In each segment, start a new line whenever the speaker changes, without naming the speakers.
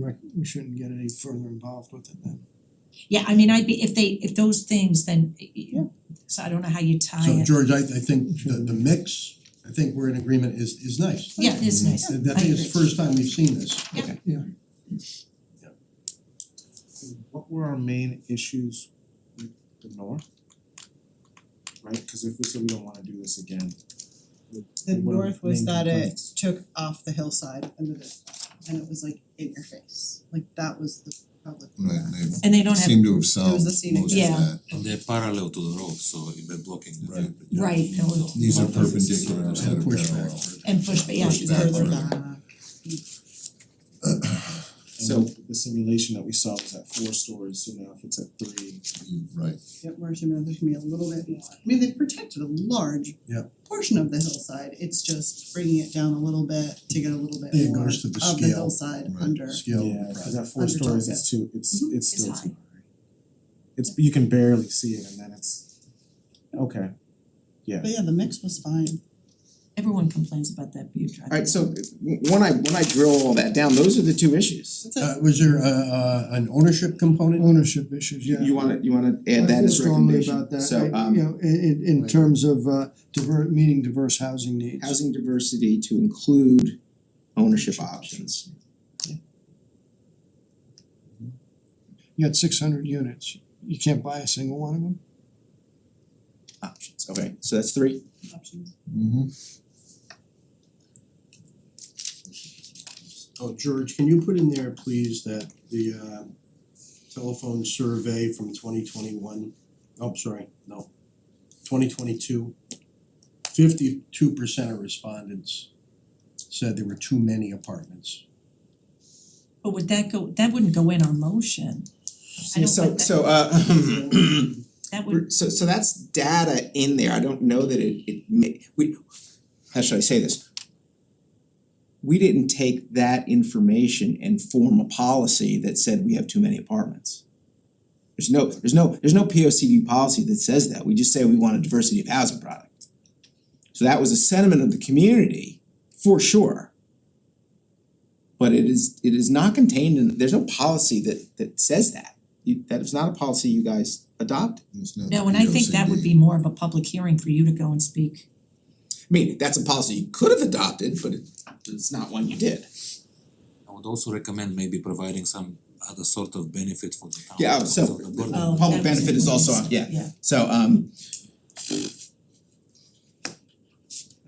Right, we shouldn't get any further involved with it then.
Yeah, I mean, I'd be, if they, if those things, then y- y-
Yeah.
so I don't know how you tie
So
it.
George, I I think the the mix, I think we're in agreement is is nice.
Yeah, it is nice.
And I
I
think it's the
agree.
first time we've seen this.
Yeah.
What were our main issues with the north? Right, cause if we said we don't wanna do this again,
The
What are
north
the
was
main
that it
complaints?
took off the hillside under the, and it was like in your face, like that was the public.
Right,
reaction.
they
And they don't have,
seem to have solved
It was the
most of
scenic
that.
Yeah.
And they're parallel to the road, so if they're blocking the
Right.
perpendicular.
Right, that would-
zone.
These are
What does it say?
perpendicular instead
And
of
push
parallel.
back.
and push, but yeah,
Push
she's
back
further
further.
back.
and the the simulation that we saw was at four stories, so now if it's at three,
You're Right,
Yep, Marcia Meadows, there's gonna be a little bit more, I mean, they protected a large
Yeah.
portion of the hillside, it's just bringing it down a little bit to get a little bit
It
more
goes to the
of the
scale,
hillside
right,
under.
Scale of the
yeah,
project.
cause at four
Under
stories,
top,
it's too, it's it's
Mm-hmm.
Mhm.
It's
still
high.
too high. It's you can barely see it and then it's, okay, yeah.
But yeah, the mix was fine,
Everyone complains about that view drive.
Alright, so w- when I when I drill all that down, those are the two issues.
that's it.
Uh was there a uh an ownership component?
Ownership issues,
You
yeah.
you wanna you wanna add that as a recommendation?
I feel
So
strongly about that, I- you
um
know, i- i- in
Right.
terms of uh diver- meeting diverse housing needs.
housing diversity to include ownership options.
You got six hundred units, you can't buy a single one of them?
Options, okay, so that's three.
Options.
Mm-hmm.
Oh,
George, can you put in there, please, that the uh telephone survey from twenty twenty one, oh, sorry, no, twenty twenty two, fifty two percent of respondents said there were too many apartments.
But would that go, that wouldn't go in our motion. I don't
So
put that-
so uh
That would,
So so that's data in there, I don't know that it it ma- we, how should I say this? We didn't take that information and form a policy that said we have too many apartments. There's no, there's no, there's no P O C D policy that says that, we just say we want a diversity of housing product. So that was a sentiment of the community, for sure. But it is, it is not contained in, there's no policy that that says that, you, that is not a policy you guys adopt.
it's not
no, and I think that would
POCD.
be more of a public hearing for you to go and speak.
I mean, that's a policy you could have adopted, but it it's not one you did.
I would also recommend maybe providing some other sort of benefit for the town.
Yeah,
because
so-
of the burden.
Oh,
Public
that was
benefit
in
is also
place.
on- yeah.
Yeah,
So um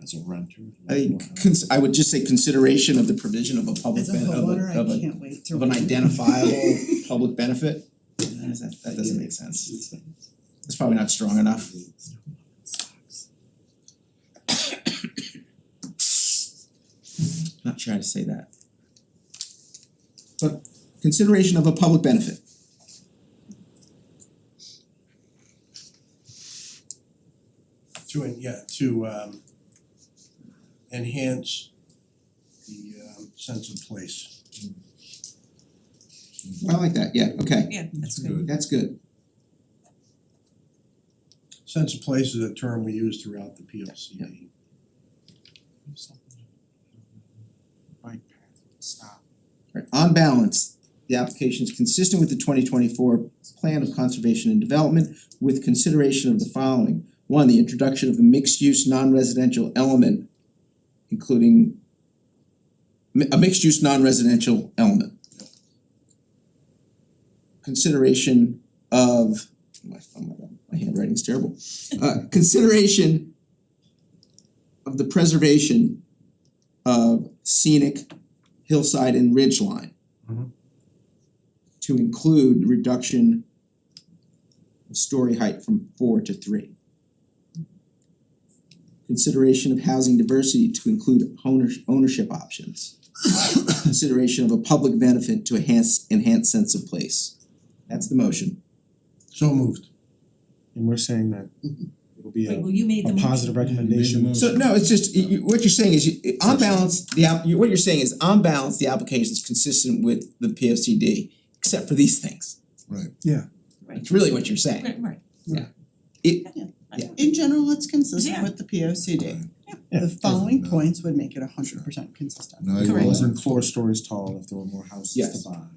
As a renter.
I
you know
think
how-
cons- I would just say consideration of the provision of a public
As a
ben- of
homeowner,
a of
I
a
can't wait to.
of an
read it.
identifiable public benefit. That is- that- that doesn't make sense. It's probably not strong enough. Not sure how to say that. But consideration of a public benefit.
To en- yeah, to um enhance the um sense of place.
I like that, yeah, okay,
yeah, that's good.
Good.
that's good.
Sense of place is a term we use throughout the P O C D.
Bike path, stop.
Right, on balance, the application is consistent with the twenty twenty-four plan of conservation and development with consideration of the following. One, the introduction of a mixed-use non-residential element, including mi- a mixed-use non-residential element. Consideration of, my, oh my god, my handwriting's terrible. Uh, consideration of the preservation of scenic hillside and ridge line.
Mhm.
To include reduction of story height from four to three. Consideration of housing diversity to include ownership ownership options. Consideration of a public benefit to enhance enhance sense of place. That's the motion.
So moved.
And we're saying that it'll be
Wait,
a
well, you made the
a
motion.
positive recommendation.
So no, it's just, you- you- what you're saying is, you- on balance, the app, you- what you're saying is, on balance, the application is consistent with the P O C D, except for these things.
Right.
Yeah.
It's really what you're saying.
Right, right.
It, Yeah.
in general, it's consistent
Yeah.
with the P O C D.
Right.
The following
definitely.
points would make it a hundred percent consistent.
No, it
Correct.
wasn't four stories tall if there were more houses
Yes.
to buy.